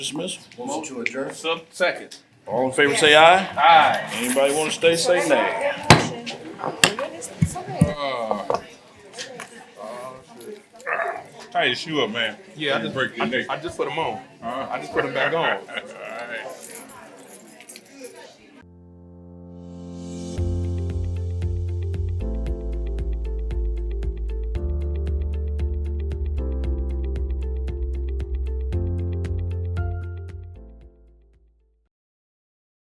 Dismiss. Motion to adjourn. Sub, second. All in favor, say aye. Aye. Anybody want to stay, say nay. Tighten your shoe up, man. Yeah, I You just, break your neck. I, I just put them on. Huh? I just put them back on.